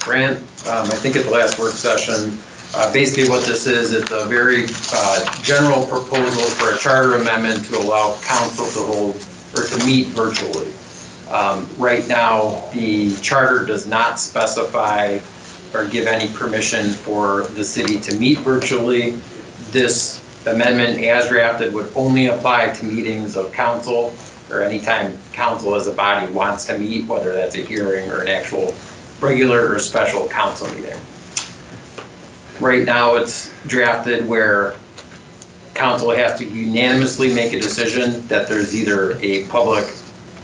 grant, um, I think at the last work session. Uh, Basically, what this is, it's a very uh, general proposal for a charter amendment to allow council to hold, or to meet virtually. Um, Right now, the charter does not specify or give any permission for the city to meet virtually. This amendment as drafted would only apply to meetings of council or anytime council as a body wants to meet, whether that's a hearing or an actual regular or special council meeting. Right now, it's drafted where council has to unanimously make a decision that there's either a public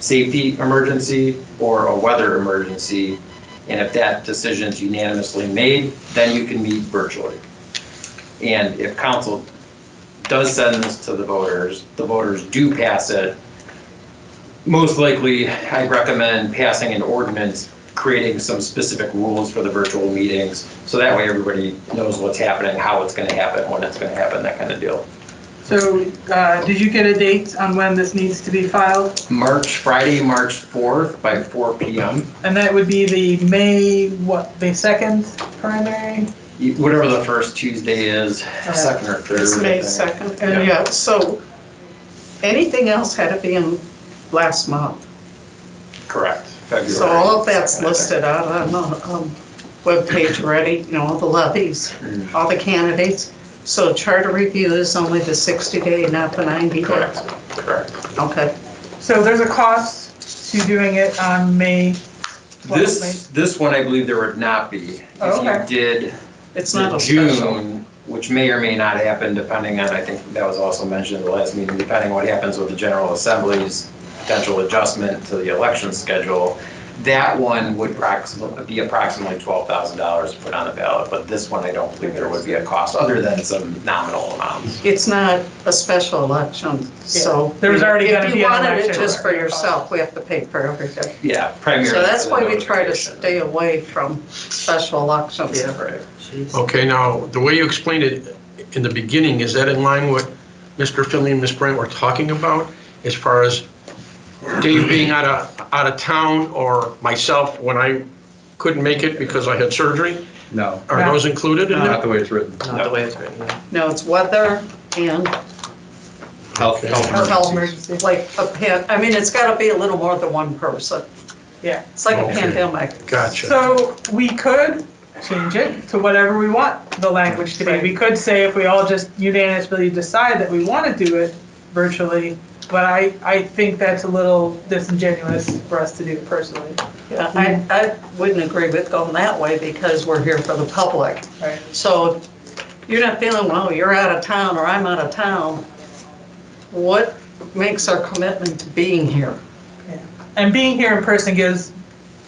safety emergency or a weather emergency. And if that decision is unanimously made, then you can meet virtually. And if council does send this to the voters, the voters do pass it. Most likely, I recommend passing an ordinance creating some specific rules for the virtual meetings. So that way, everybody knows what's happening, how it's going to happen, when it's going to happen, that kind of deal. So, uh, did you get a date on when this needs to be filed? March, Friday, March 4th by four PM. And that would be the May, what, the second primary? You- E, Whatever the first Tuesday is, second or third. Uh, It's I May think. 2nd, Yeah. and yeah, so anything else had to be in last month. Correct. So February all of that's 2nd, I think. listed out on the um, webpage already, you know, all the levies, Mm. all the candidates. So charter review is only the 60-day, not the 90-day. Correct, correct. Okay. So there's a cost to doing it on May, Well, This, this one, I believe there would not be. Oh, okay. If you did It's not the a special. June, which may or may not happen depending on, I think that was also mentioned in the last meeting, depending what happens with the General Assembly's potential adjustment to the election schedule, that one would approximately, be approximately $12,000 to put on the ballot, but this one, I don't believe there would be a cost other than some nominal amounts. It's not a special election, so. Yeah, there was already gonna be an If you wanted it election. just for yourself, we have to pay for everything. Yeah, primarily. So that's for the why we try to notification. stay away from special elections. Right. Okay, now, the way you explained it in the beginning, is that in line with Mr. Finley and Ms. Bryant were talking about as far as Dave being out of, out of town or myself when I couldn't make it because I had surgery? No, Are those included in not that? the way it's written. Not the way it's written. No, it's weather and Health, a health health emergencies. emergency, like a pan, I mean, it's gotta be a little more than one person. yeah. It's like a Okay. pandemic. Gotcha. So we could change it to whatever we want the language to be. We could say if we all just unanimously decide that we want to do it virtually, but I, I think that's a little disingenuous for us to do personally. Yeah, I, I wouldn't agree with going that way because we're here for the public. Right. So you're not feeling, well, you're out of town or I'm out of town. What makes our commitment to being here? And being here in person gives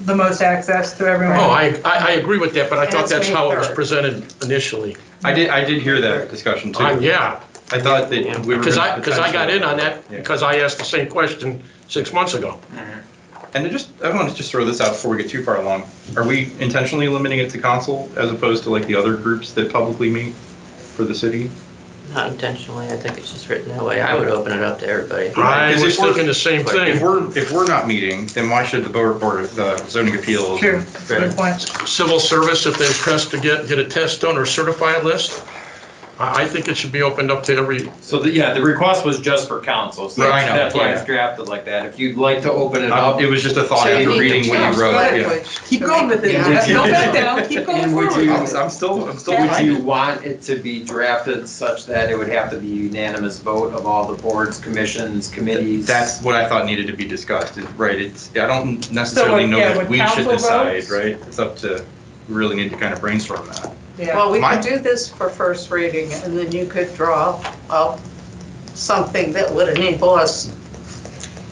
the most access to Oh, everyone. I, I, I agree with that, but I And thought it's that's how it was May third. presented initially. I did, I did hear that discussion too. Uh, I Yeah, thought that we were. because I, gonna because I got in on that Yeah. because I asked the same question six months ago. And I just, I want to just throw this out before we get too far along. Are we intentionally limiting it to council as opposed to like the other groups that publicly meet for the city? Not intentionally, I think it's just written that way. I would open it up to everybody. I Because was if we're- thinking the same If thing. we're, if we're not meeting, then why should the board, board of the zoning appeals? True, good point. civil service, if they're pressed to get, get a test done or certified list, I, I think it should be opened up to every, So, the- yeah, the request was just for council, so Right, I know, that's why it's yeah. drafted like that. If you'd like to open it Uh, up, It was just a thought So you after need to reading what change you wrote. yeah. language Keep to going make with it, it. Jeff. don't back down, keep going And would forward. you- I'm I'm still, I'm still would behind you you. want it to be drafted such that it would have to be unanimous vote of all the boards, commissions, committees? That's what I thought needed to be discussed, is- right, it's, I don't necessarily know yeah, that would we should council decide, vote? right? It's up to, we really need to kind of brainstorm that. Yeah, Well, we My- could do this for first reading, and then you could draw up something that would enable us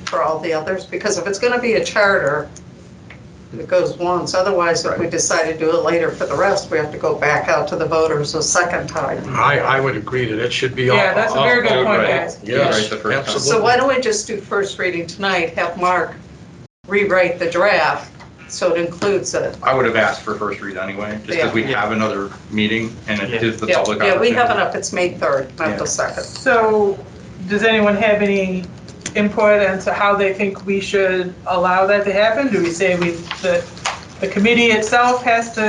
for all the others, because if it's gonna be a charter, it goes once, otherwise if we decide to do it later for the rest, we have to go back out to the voters a second time. I, I would agree that it should be. all- yeah, that's a very good point, Right. guys. Right, Yes, the first time. So absolutely. why don't we just do first reading tonight, have Mark rewrite the draft so it includes it? I would have asked for first read anyway, just because we Yeah. have another meeting and it Yeah. gives the Yeah, public Yeah, we opportunity. have it up, it's May 3rd, not Yeah. the 2nd. So, does anyone have any input into how they think we should allow that to happen? Do we say we, the, the committee itself has to